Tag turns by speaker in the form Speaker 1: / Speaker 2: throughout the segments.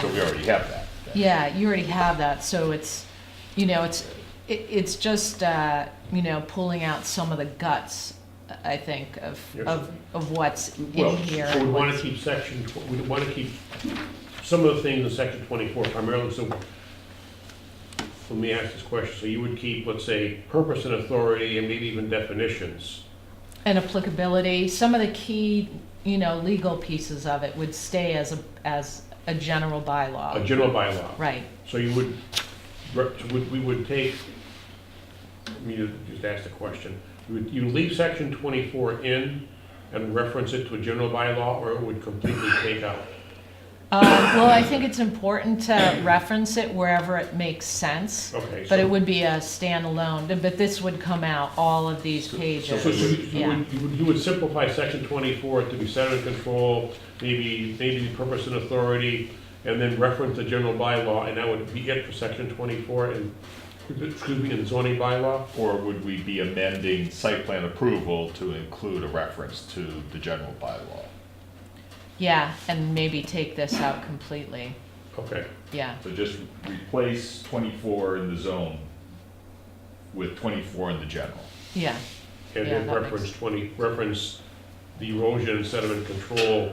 Speaker 1: So we already have that.
Speaker 2: Yeah, you already have that, so it's, you know, it's, it, it's just, uh, you know, pulling out some of the guts, I think, of,
Speaker 3: Yes.
Speaker 2: of, of what's
Speaker 3: Well,
Speaker 2: in here.
Speaker 3: so we want to keep section, tw- we want to keep some of the things in section 24 primarily, so let me ask this question. So you would keep, let's say, purpose and authority and maybe even definitions.
Speaker 2: And applicability, some of the key, you know, legal pieces of it would stay as a, as a general
Speaker 3: A
Speaker 2: bylaw.
Speaker 3: general bylaw.
Speaker 2: Right,
Speaker 3: So you would, re- would- we would take, let me ju- just ask the question. You would- You leave section 24 in and reference it to a general bylaw, or it would completely take out?
Speaker 2: um, well, I think it's important to reference it wherever it makes sense,
Speaker 3: Okay. so-
Speaker 2: but it would be a standalone, but this would come out, all of these
Speaker 3: So you
Speaker 2: pages,
Speaker 3: would- you
Speaker 2: yeah.
Speaker 3: would, you would- you would simplify section twenty-four to be center control, maybe, maybe the purpose and authority, and then reference the general bylaw, and that would be it for section twenty-four and, excuse me, and zoning bylaw?
Speaker 1: Or would we be amending site plan approval to include a reference to the general bylaw?
Speaker 2: Yeah, and maybe take this out completely,
Speaker 3: Okay,
Speaker 2: yeah.
Speaker 1: So just replace twenty-four in the zone with twenty-four in the general.
Speaker 2: Yeah,
Speaker 3: and
Speaker 2: Yeah,
Speaker 3: then
Speaker 2: that
Speaker 3: reference twenty, reference the erosion and sediment control.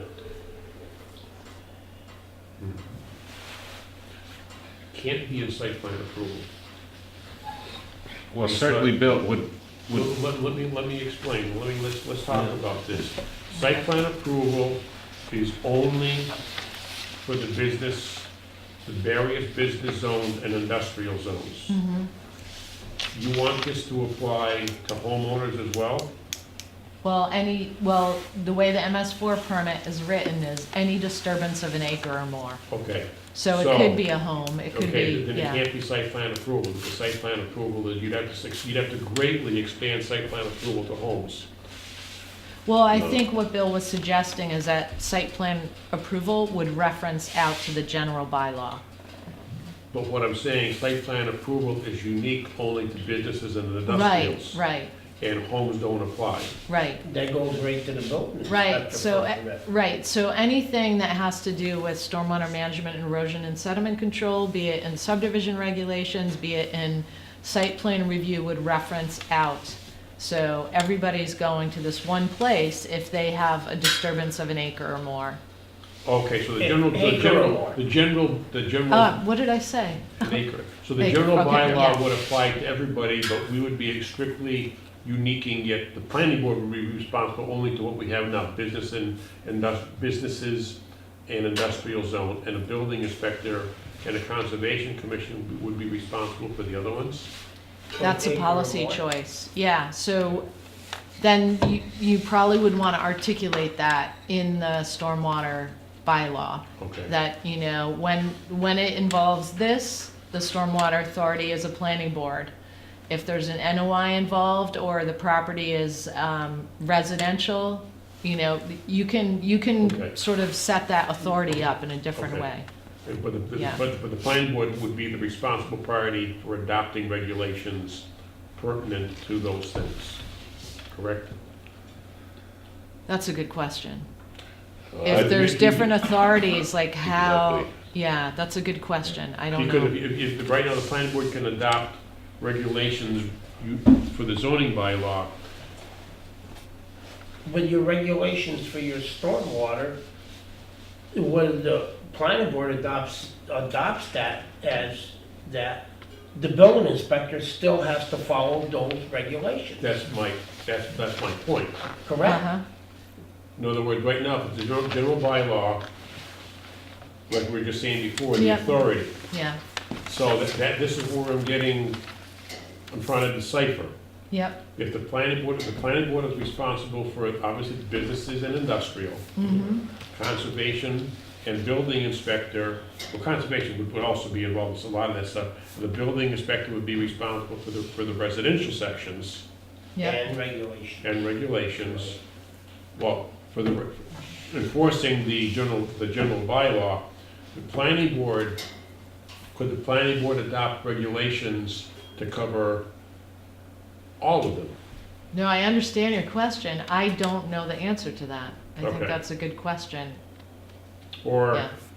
Speaker 3: Hmm. Can't be in site plan approval.
Speaker 1: Well,
Speaker 3: certainly,
Speaker 1: Bill, would,
Speaker 3: Let, let- let me, let me explain, let me, let's, let's talk about this. Site plan approval is only for the business, the various business zones and industrial zones.
Speaker 2: Mm-hmm.
Speaker 3: You want this to apply to homeowners as well?
Speaker 2: well, any, well, the way the MS four permit is written is any disturbance of an acre or more.
Speaker 3: Okay,
Speaker 2: So
Speaker 3: So-
Speaker 2: it could be a home, it could
Speaker 3: okay,
Speaker 2: be,
Speaker 3: then it
Speaker 2: yeah,
Speaker 3: can't be site plan approval, because site plan approval, is you'd have to, suc- you'd have to greatly expand site plan approval to homes.
Speaker 2: well, I think what Bill was suggesting is that site plan approval would reference out to the general bylaw.
Speaker 3: But what I'm saying, site plan approval is unique only to businesses and
Speaker 2: Right,
Speaker 3: industrials.
Speaker 2: right,
Speaker 3: and homes don't apply.
Speaker 2: right.
Speaker 4: That goes right to the building.
Speaker 2: Right,
Speaker 4: inspector
Speaker 2: so, eh,
Speaker 4: for that.
Speaker 2: right, so anything that has to do with stormwater management, erosion and sediment control, be it in subdivision regulations, be it in site plan review would reference out. So everybody's going to this one place if they have a disturbance of an acre or more.
Speaker 3: Okay, so the general, the
Speaker 4: Acre or
Speaker 3: general,
Speaker 4: more.
Speaker 3: the general, the
Speaker 2: Uh,
Speaker 4: Hmm.
Speaker 3: general,
Speaker 2: what did I say?
Speaker 3: an acre. So the
Speaker 2: Acre,
Speaker 3: general
Speaker 2: okay,
Speaker 3: bylaw
Speaker 2: yeah.
Speaker 3: would apply to everybody, but we would be strictly uniquing it. The planning board would be responsible only to what we have now, business and, indus- businesses and industrial zone. And a building inspector and a conservation commission would be responsible for the other ones.
Speaker 2: That's a
Speaker 4: Acre or
Speaker 2: policy
Speaker 4: more.
Speaker 2: choice, yeah, so then you, you probably would wanna articulate that in the stormwater bylaw.
Speaker 3: Okay,
Speaker 2: that, you know, when, when it involves this, the stormwater authority is a planning board. If there's an NOI involved or the property is um, residential, you know, you can, you
Speaker 3: Okay.
Speaker 2: can sort of set that authority up in a different
Speaker 3: Okay.
Speaker 2: way.
Speaker 3: And but the,
Speaker 2: Yeah.
Speaker 3: but, but the planning board would be the responsible party for adopting regulations pertinent to those things, correct?
Speaker 2: That's a good question.
Speaker 1: I-
Speaker 3: Uh,
Speaker 2: If there's
Speaker 3: you-
Speaker 2: different authorities, like how,
Speaker 1: Exactly.
Speaker 2: yeah, that's a good question, I don't
Speaker 3: Because
Speaker 2: know.
Speaker 3: if, if, if right now the planning board can adopt regulations you- for the zoning bylaw,
Speaker 4: But your regulations for your stormwater, when the planning board adopts, adopts that as that, the building inspector still has to follow those regulations,
Speaker 3: that's my, that's, that's my point.
Speaker 4: correct?
Speaker 2: Uh-huh,
Speaker 3: In other words, right now, if the general, general bylaw, like we were just saying before, the
Speaker 2: Yeah.
Speaker 3: authority.
Speaker 2: yeah,
Speaker 3: So that, that, this is where I'm getting, I'm trying to decipher.
Speaker 2: yep,
Speaker 3: If the planning board, if the planning board is responsible for, obviously, the businesses and industrial,
Speaker 2: mhm,
Speaker 3: conservation and building inspector, well, conservation would, would also be involved with a lot of that stuff. The building inspector would be responsible for the, for the residential sections
Speaker 2: yep,
Speaker 4: And regulations.
Speaker 3: and regulations. Well, for the, re- enforcing the general, the general bylaw, the planning board, could the planning board adopt regulations to cover all of them?
Speaker 2: No, I understand your question. I don't know the answer to that. I think
Speaker 3: Okay.
Speaker 2: that's a good question.
Speaker 3: Or
Speaker 2: Yeah.